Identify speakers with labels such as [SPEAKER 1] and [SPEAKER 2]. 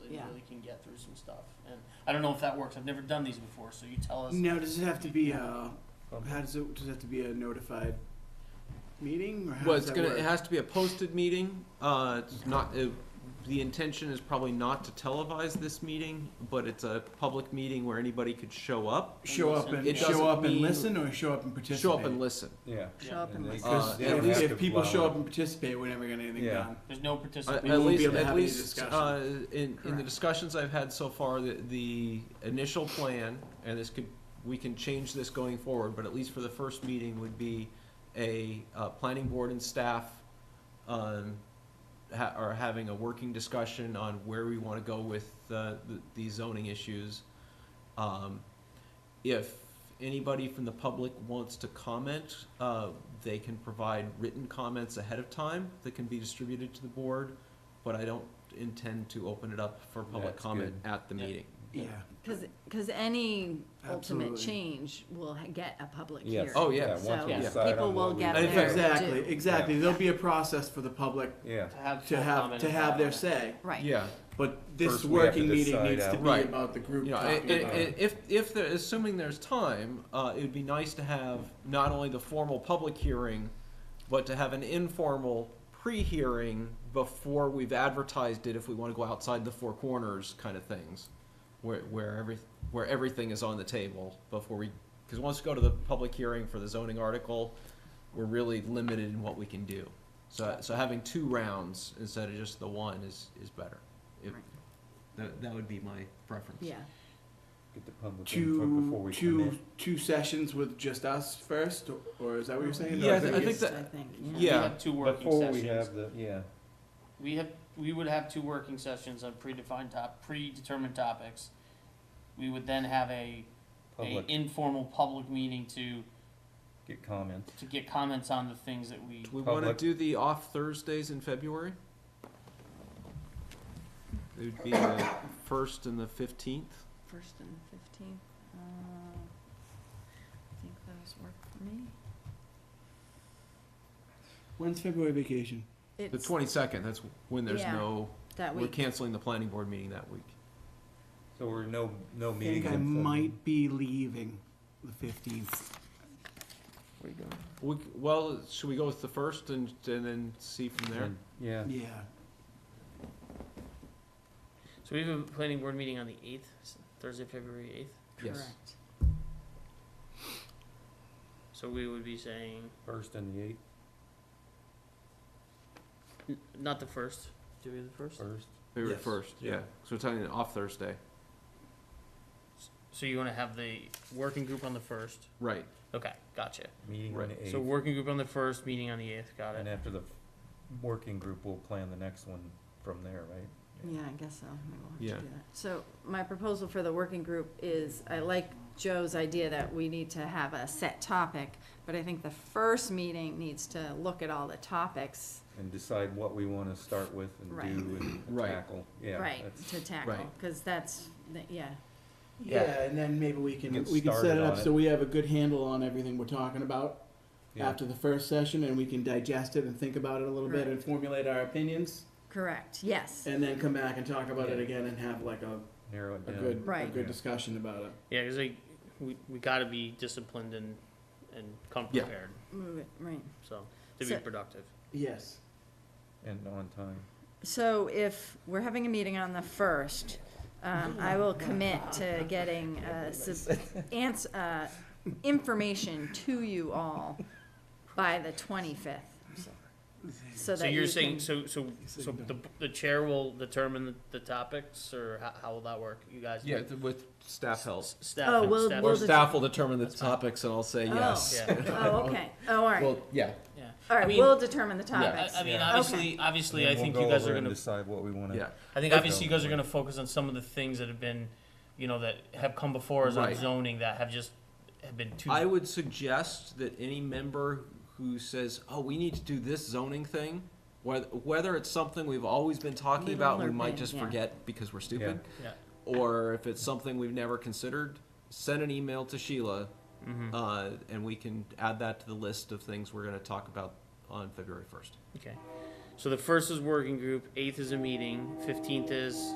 [SPEAKER 1] that
[SPEAKER 2] Yeah.
[SPEAKER 1] really can get through some stuff. And I don't know if that works. I've never done these before, so you tell us.
[SPEAKER 3] Now, does it have to be a? How does it? Does it have to be a notified meeting? Or how
[SPEAKER 4] Well,
[SPEAKER 3] does
[SPEAKER 4] it's
[SPEAKER 3] that
[SPEAKER 4] gonna,
[SPEAKER 3] work?
[SPEAKER 4] it has to be a posted meeting. Uh, it's not, it- the intention is probably not to televise this meeting, but it's a public meeting where anybody could show up.
[SPEAKER 3] show up and
[SPEAKER 4] It doesn't
[SPEAKER 3] show up and
[SPEAKER 4] mean-
[SPEAKER 3] listen, or show up and participate.
[SPEAKER 4] Show up and listen.
[SPEAKER 5] Yeah.
[SPEAKER 2] Show up and
[SPEAKER 5] And they-
[SPEAKER 2] listen.
[SPEAKER 4] Uh,
[SPEAKER 3] Because
[SPEAKER 4] at
[SPEAKER 3] if,
[SPEAKER 4] least-
[SPEAKER 3] if people show
[SPEAKER 5] Yeah.
[SPEAKER 3] up and participate, we're never gonna get anything
[SPEAKER 5] Yeah.
[SPEAKER 3] done.
[SPEAKER 1] There's no
[SPEAKER 4] At
[SPEAKER 1] participation.
[SPEAKER 4] at
[SPEAKER 3] won't be
[SPEAKER 4] least,
[SPEAKER 3] able to
[SPEAKER 4] at
[SPEAKER 3] have any
[SPEAKER 4] least,
[SPEAKER 3] discussion.
[SPEAKER 4] uh, in, in the
[SPEAKER 2] Correct.
[SPEAKER 4] discussions I've had so far, the, the initial plan, and this could, we can change this going forward, but at least for the first meeting would be a, uh, planning board and staff, um, ha, are having a working discussion on where we wanna go with, uh, the, the zoning issues. Um, if anybody from the public wants to comment, uh, they can provide written comments ahead of time that can be distributed to the board, but I don't intend to open it up for public
[SPEAKER 5] That's
[SPEAKER 4] comment at the
[SPEAKER 1] Yeah.
[SPEAKER 4] meeting.
[SPEAKER 3] Yeah.
[SPEAKER 2] Cause, 'cause any ultimate
[SPEAKER 3] Absolutely.
[SPEAKER 2] change will ha- get a public
[SPEAKER 5] Yes.
[SPEAKER 2] hearing.
[SPEAKER 4] Oh, yeah.
[SPEAKER 5] Yeah, once
[SPEAKER 2] So
[SPEAKER 5] we
[SPEAKER 1] Yeah.
[SPEAKER 5] decide
[SPEAKER 2] people
[SPEAKER 5] on
[SPEAKER 2] will
[SPEAKER 5] what we-
[SPEAKER 2] get
[SPEAKER 4] And in
[SPEAKER 2] their
[SPEAKER 4] fact-
[SPEAKER 3] Exactly.
[SPEAKER 2] due.
[SPEAKER 3] Exactly. There'll be a process for the public
[SPEAKER 5] Yeah,
[SPEAKER 1] to have
[SPEAKER 3] to
[SPEAKER 1] full
[SPEAKER 3] have
[SPEAKER 1] comment
[SPEAKER 3] to
[SPEAKER 1] and
[SPEAKER 3] have their
[SPEAKER 1] comment.
[SPEAKER 3] say.
[SPEAKER 2] Right.
[SPEAKER 4] Yeah,
[SPEAKER 3] But this
[SPEAKER 5] First, we have to
[SPEAKER 3] working meeting
[SPEAKER 5] decide
[SPEAKER 3] needs to
[SPEAKER 5] out-
[SPEAKER 3] be
[SPEAKER 4] Right.
[SPEAKER 3] about the group.
[SPEAKER 4] you know, i-
[SPEAKER 3] talking
[SPEAKER 4] i-
[SPEAKER 3] about
[SPEAKER 4] i- if, if there, assuming there's time, uh, it'd be nice to have not only the formal public hearing, but to have an informal pre-hearing before we've advertised it, if we wanna go outside the four corners kind of things. Where, where every, where everything is on the table before we, cause once we go to the public hearing for the zoning article, we're really limited in what we can do. So, so having two rounds instead of just the one is, is better. If,
[SPEAKER 2] Right.
[SPEAKER 4] that, that would be my preference.
[SPEAKER 2] Yeah,
[SPEAKER 5] get the public input before
[SPEAKER 3] two
[SPEAKER 5] we
[SPEAKER 3] two
[SPEAKER 5] commit.
[SPEAKER 3] two sessions with just us first, or, or is that what you're saying?
[SPEAKER 4] Yeah,
[SPEAKER 3] Or
[SPEAKER 4] I
[SPEAKER 3] is
[SPEAKER 4] thi-
[SPEAKER 3] it
[SPEAKER 4] I think
[SPEAKER 3] just-
[SPEAKER 4] that-
[SPEAKER 2] I think,
[SPEAKER 1] We
[SPEAKER 4] Yeah.
[SPEAKER 1] have two working
[SPEAKER 5] Before
[SPEAKER 1] sessions.
[SPEAKER 5] we have the, yeah,
[SPEAKER 1] We have, we would have two working sessions on predefined top, predetermined topics. We would then have a, a
[SPEAKER 5] public,
[SPEAKER 1] informal public meeting to,
[SPEAKER 5] get comments.
[SPEAKER 1] to get comments on the things that we,
[SPEAKER 4] Do we want to
[SPEAKER 5] Public.
[SPEAKER 4] do the off Thursdays in February? It would be the first and the fifteenth.
[SPEAKER 2] First and fifteenth, uh, I think those work for me.
[SPEAKER 3] When's February vacation?
[SPEAKER 4] The
[SPEAKER 2] It's
[SPEAKER 4] twenty-second, that's when there's
[SPEAKER 2] Yeah,
[SPEAKER 4] no,
[SPEAKER 2] that
[SPEAKER 4] we're
[SPEAKER 2] week.
[SPEAKER 4] canceling the planning board meeting that week.
[SPEAKER 5] So we're no, no
[SPEAKER 3] I
[SPEAKER 5] meetings.
[SPEAKER 3] think I
[SPEAKER 5] in February.
[SPEAKER 3] might be leaving the fifteenth.
[SPEAKER 4] We, c- well, should we go with the first and, and then see from there?
[SPEAKER 5] Yeah,
[SPEAKER 3] Yeah.
[SPEAKER 1] so we have a planning board meeting on the eighth, Thursday, February eighth.
[SPEAKER 4] Yes.
[SPEAKER 2] Correct.
[SPEAKER 1] So we would be saying,
[SPEAKER 5] first and the eighth,
[SPEAKER 1] not the first. Do we have the first?
[SPEAKER 5] first.
[SPEAKER 4] February
[SPEAKER 3] Yes.
[SPEAKER 4] first, yeah.
[SPEAKER 5] Yeah.
[SPEAKER 4] So we're talking off Thursday,
[SPEAKER 1] So you wanna have the working group on the first?
[SPEAKER 4] right.
[SPEAKER 1] Okay, gotcha.
[SPEAKER 5] Meeting on
[SPEAKER 4] Right.
[SPEAKER 5] the
[SPEAKER 1] So
[SPEAKER 5] eighth,
[SPEAKER 1] working group on the first, meeting on the eighth, got
[SPEAKER 5] and
[SPEAKER 1] it.
[SPEAKER 5] after the working group, we'll plan the next one from there, right?
[SPEAKER 2] Yeah, I guess so. Maybe we'll
[SPEAKER 4] Yeah.
[SPEAKER 2] have to do that. So my proposal for the working group is, I like Joe's idea that we need to have a set topic, but I think the first meeting needs to look at all the topics,
[SPEAKER 5] And decide what we wanna start with and
[SPEAKER 2] Right.
[SPEAKER 5] do and
[SPEAKER 4] Right.
[SPEAKER 5] tackle, yeah.
[SPEAKER 2] right,
[SPEAKER 5] that's-
[SPEAKER 2] to tackle,
[SPEAKER 4] Right.
[SPEAKER 2] because that's, the- yeah,
[SPEAKER 3] yeah,
[SPEAKER 5] Yeah.
[SPEAKER 3] and then maybe we can
[SPEAKER 5] Get
[SPEAKER 3] we can set
[SPEAKER 5] started
[SPEAKER 3] it up
[SPEAKER 5] on it.
[SPEAKER 3] so we have a good handle on everything we're talking about
[SPEAKER 5] yeah.
[SPEAKER 3] after the first session, and we can digest it and think about it a little
[SPEAKER 2] Right.
[SPEAKER 3] bit and formulate our opinions,
[SPEAKER 2] correct, yes.
[SPEAKER 3] and then come back and talk about it
[SPEAKER 5] Yeah.
[SPEAKER 3] again and have like a,
[SPEAKER 5] Narrow it
[SPEAKER 3] a
[SPEAKER 5] down.
[SPEAKER 3] good a
[SPEAKER 2] Right.
[SPEAKER 3] good
[SPEAKER 5] Yeah.
[SPEAKER 3] discussion about it.
[SPEAKER 1] Yeah, cause like, we, we gotta be disciplined and, and come
[SPEAKER 4] Yeah.
[SPEAKER 1] prepared,
[SPEAKER 2] Move it, Mm, right.
[SPEAKER 1] so, to be
[SPEAKER 2] So-
[SPEAKER 1] productive.
[SPEAKER 3] Yes.
[SPEAKER 5] And on time.
[SPEAKER 2] So if we're having a meeting on the first, um, I will commit to getting, uh, sub- ans- uh, information to you all by the twenty-fifth.
[SPEAKER 1] So
[SPEAKER 2] So that you
[SPEAKER 1] you're saying,
[SPEAKER 2] can-
[SPEAKER 1] so, so,
[SPEAKER 3] said
[SPEAKER 1] so
[SPEAKER 3] no.
[SPEAKER 1] the, the chair will determine the- the topics, or how, how will that work, you guys?
[SPEAKER 4] Yeah, th- with staff help.
[SPEAKER 1] S- Staff.
[SPEAKER 2] Oh, we'll-
[SPEAKER 1] staff-
[SPEAKER 4] Or
[SPEAKER 2] det-
[SPEAKER 4] staff will determine the
[SPEAKER 1] That's fine.
[SPEAKER 4] topics and I'll say
[SPEAKER 2] Oh.
[SPEAKER 4] yes.
[SPEAKER 1] Yeah,
[SPEAKER 2] Oh, okay, oh, all right,
[SPEAKER 4] Well, yeah,
[SPEAKER 1] yeah.
[SPEAKER 2] all
[SPEAKER 1] I
[SPEAKER 2] right,
[SPEAKER 1] mean-
[SPEAKER 2] we'll determine the
[SPEAKER 1] I,
[SPEAKER 2] topics.
[SPEAKER 1] I mean,
[SPEAKER 5] Yeah.
[SPEAKER 1] obviously, obviously, I
[SPEAKER 5] And then
[SPEAKER 1] think
[SPEAKER 5] we'll
[SPEAKER 1] you
[SPEAKER 5] go
[SPEAKER 1] guys
[SPEAKER 5] over
[SPEAKER 1] are
[SPEAKER 5] and
[SPEAKER 1] gonna,
[SPEAKER 5] Decide what we wanna.
[SPEAKER 4] yeah.
[SPEAKER 1] I think
[SPEAKER 5] Okay.
[SPEAKER 1] obviously you guys are gonna focus on some of the things that have been, you know, that have come before us on
[SPEAKER 4] Right.
[SPEAKER 1] zoning that have just, have been too.
[SPEAKER 4] I would suggest that any member who says, "Oh, we need to do this zoning thing," whether whether it's something we've always been talking
[SPEAKER 2] Little
[SPEAKER 4] about, and
[SPEAKER 2] or
[SPEAKER 4] we might
[SPEAKER 2] big,
[SPEAKER 4] just
[SPEAKER 2] yeah.
[SPEAKER 4] forget because we're stupid,
[SPEAKER 1] Yeah.
[SPEAKER 4] or if it's something we've never considered, send an email to Sheila,
[SPEAKER 1] Mhm.
[SPEAKER 4] uh, and we can add that to the list of things we're going to talk about on February first.
[SPEAKER 1] Okay. So the first is working group, eighth is a meeting, fifteenth is